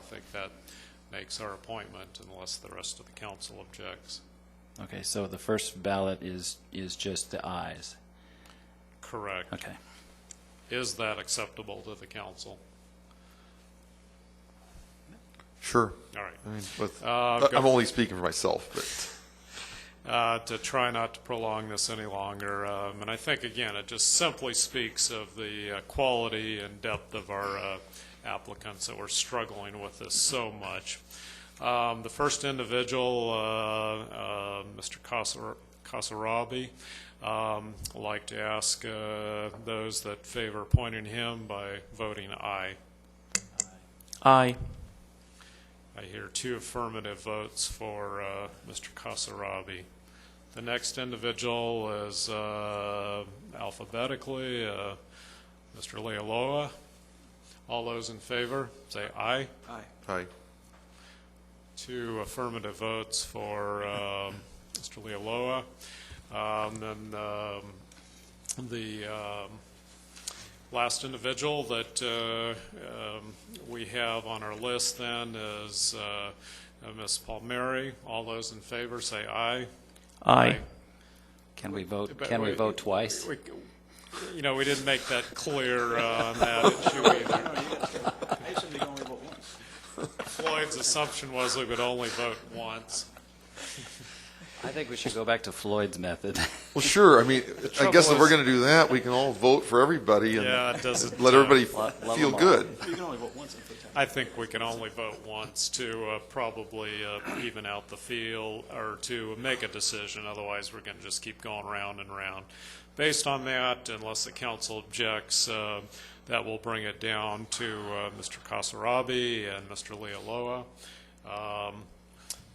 think that makes our appointment unless the rest of the council objects. Okay, so the first ballot is, is just the ayes. Correct. Okay. Is that acceptable to the council? Sure. All right. I mean, with, Uh, I'm go- only speaking for myself, but uh, to try not to prolong this any longer. Um, And I think, again, it just simply speaks of the uh, quality and depth of our uh, applicants that we're struggling with this so much. Um, The first individual, uh, uh, Mr. Casar- Casarabi, um, I'd like to ask uh, those that favor appointing him by voting aye. Aye. I hear two affirmative votes for uh, Mr. Kasarabi. The next individual is uh, alphabetically uh, Mr. Lealoa. All those in favor, say aye. I, Two affirmative votes for um, Mr. Lealoa. Um, Then um, the um, last individual that uh, um, we have on our list then is uh, uh, Ms. Palmieri. All those in favor, say aye. Aye. Can we vote, But can we we- vote twice? We- You know, we didn't make that clear uh, on that issue either. Floyd's assumption was we would only vote once. I think we should go back to Floyd's method. well, sure. I mean, I guess if trouble we're is- going to do that, we can all vote for everybody and Yeah, it doesn't. let uh, everybody Let- let feel them all. good. You can only vote once in front I think we can only vote once to uh, probably uh, even out the field or to make a decision, otherwise we're going to just keep going round and round. Based on that, unless the council objects, uh, that will bring it down to uh, Mr. Kasarabi and Mr. Lealoa. Um,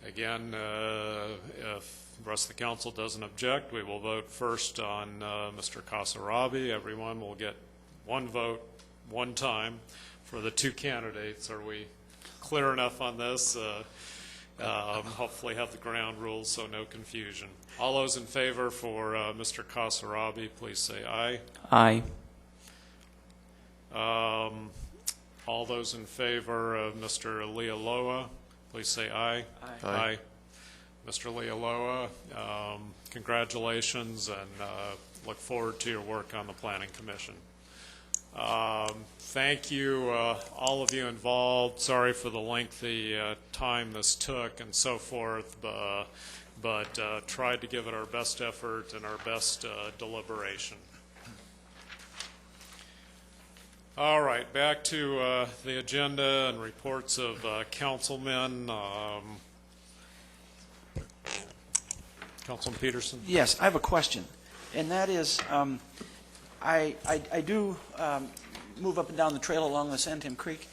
Again, uh, if the rest of the council doesn't object, we will vote first on uh, Mr. Kasarabi. Everyone will get one vote, one time for the two candidates. Are we clear enough on this? Uh, um, Hopefully have the ground rules, so no confusion. All those in favor for uh, Mr. Kasarabi, please say aye. Aye. Um, All those in favor of Mr. Lealoa, please say aye. Aye. Mr. Lealoa, um, congratulations, and uh, look forward to your work on the Planning Commission. Um, Thank you, uh, all of you involved. Sorry for the lengthy uh, time this took and so forth, bu- but uh, tried to give it our best effort and our best uh, deliberation. All right, back to uh, the agenda and reports of uh, councilmen. Um, Councilman Peterson? Yes, I have a question, and that is, um, I, I I do um, move up and down the trail along the Santam Creek,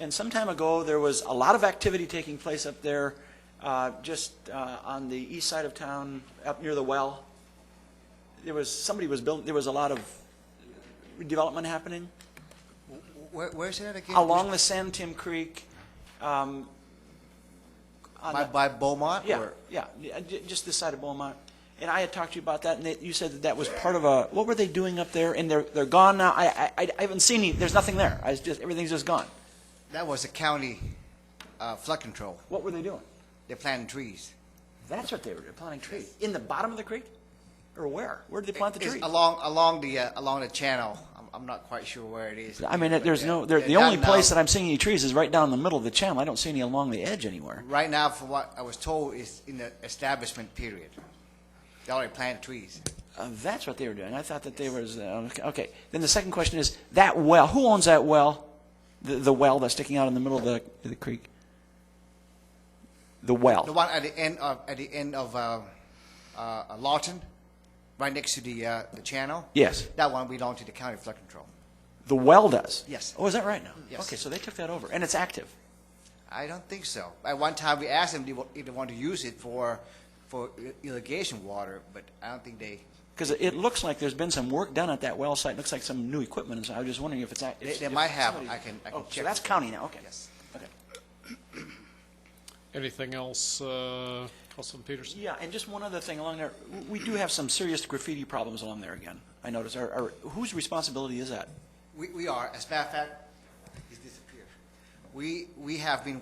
and some time ago, there was a lot of activity taking place up there, uh, just uh, on the east side of town, up near the well. There was, somebody was building, there was a lot of development happening. Where, where's that again? along the San Tim Creek, um, on By, the- by Beaumont? yeah, or- yeah, yeah, ju- just this side of Beaumont. And I had talked to you about that, and that- you said that that was part of a, what were they doing up there? And they're, they're gone now, I, I- I, I haven't seen any, there's nothing there, I was just, everything's just gone. That was the county uh, flood control. What were they doing? They planted trees. That's what they were, doing, planting trees, in the bottom of the creek? Or where? Where did they plant the It's trees? Along, along the, uh, along the channel. I'm, I'm not quite sure where it is. I mean, but there's they're- no, there- they're the only done now. place that I'm seeing any trees is right down the middle of the channel, I don't see any along the edge anywhere. Right now, from what I was told, is in the establishment period. They already planted trees. Uh, that's what they were doing. I thought that they was uh, okay- okay. Then the second question is that well. Who owns that well? The, the well that's sticking out in the middle of the, the creek. The well. The one at the end of, at the end of, uh, uh, Lawton, right next to the, uh, the channel. Yes. That one belonged to the county flood control. The well does. Yes. Oh, is that right now? Yes. Okay, so they took that over, and it's active. I don't think so. At one time, we asked them if they wa- if they want to use it for, for i- irrigation water, but I don't think they, Because it looks like there's been some work done at that well site. Looks like some new equipment, and so I was just wondering if it's active. they, they might have. I can, I Oh, so can check. that's with them. county now. Okay. Yes. Okay. Anything else, uh, Councilman Peterson? Yeah, and just one other thing along there. W- We do have some serious graffiti problems along there again. I noticed. Or, or whose responsibility is that? We, we are, as a matter of fact, it's disappeared. We, we have been